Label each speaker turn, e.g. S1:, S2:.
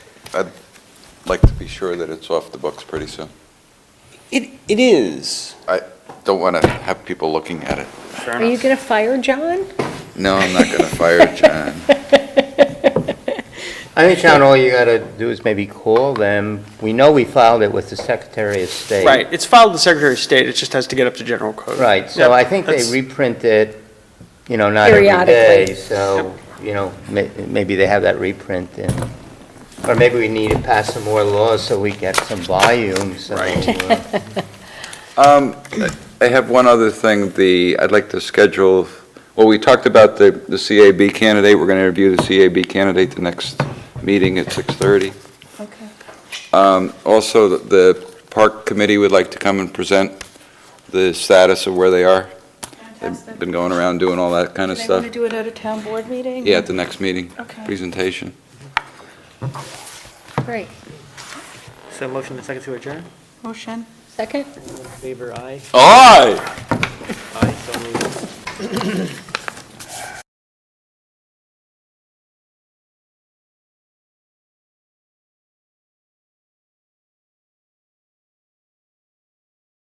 S1: I'd like to be sure that it's off the books pretty soon.
S2: It, it is.
S1: Don't want to have people looking at it.
S3: Fair
S4: Are you
S3: enough.
S4: going to fire John?
S1: No, I'm not going to fire John.
S5: I think, Sean, all you gotta do is maybe call them. We know we filed it with the Secretary of State.
S3: Right, it's filed with the Secretary of State, it just has to get up to general code.
S5: Right, so
S3: Yep,
S5: I think they
S3: that's-
S5: reprint it, you know, not every
S4: Periodically.
S5: day, so, you know, may- maybe they have that reprint in. Or maybe we need to pass some more laws so we get some volume, so. uh,
S1: Um, I have one other thing, the, I'd like to schedule, well, we talked about the, the CAB candidate, we're going to interview the CAB candidate the next meeting at 6:30.
S4: Okay.
S1: Um, Also, the- the Park Committee would like to come and present the status of where they are. They've been going around doing all that kind of
S4: They want
S1: stuff.
S4: to do it at a town board meeting?
S1: Yeah, at the next meeting,
S4: Okay,
S1: presentation.
S4: great.
S3: So motion and second to adjourn?
S4: Motion? Second?
S3: Favor, aye.
S1: Aye!
S3: Aye, so moved.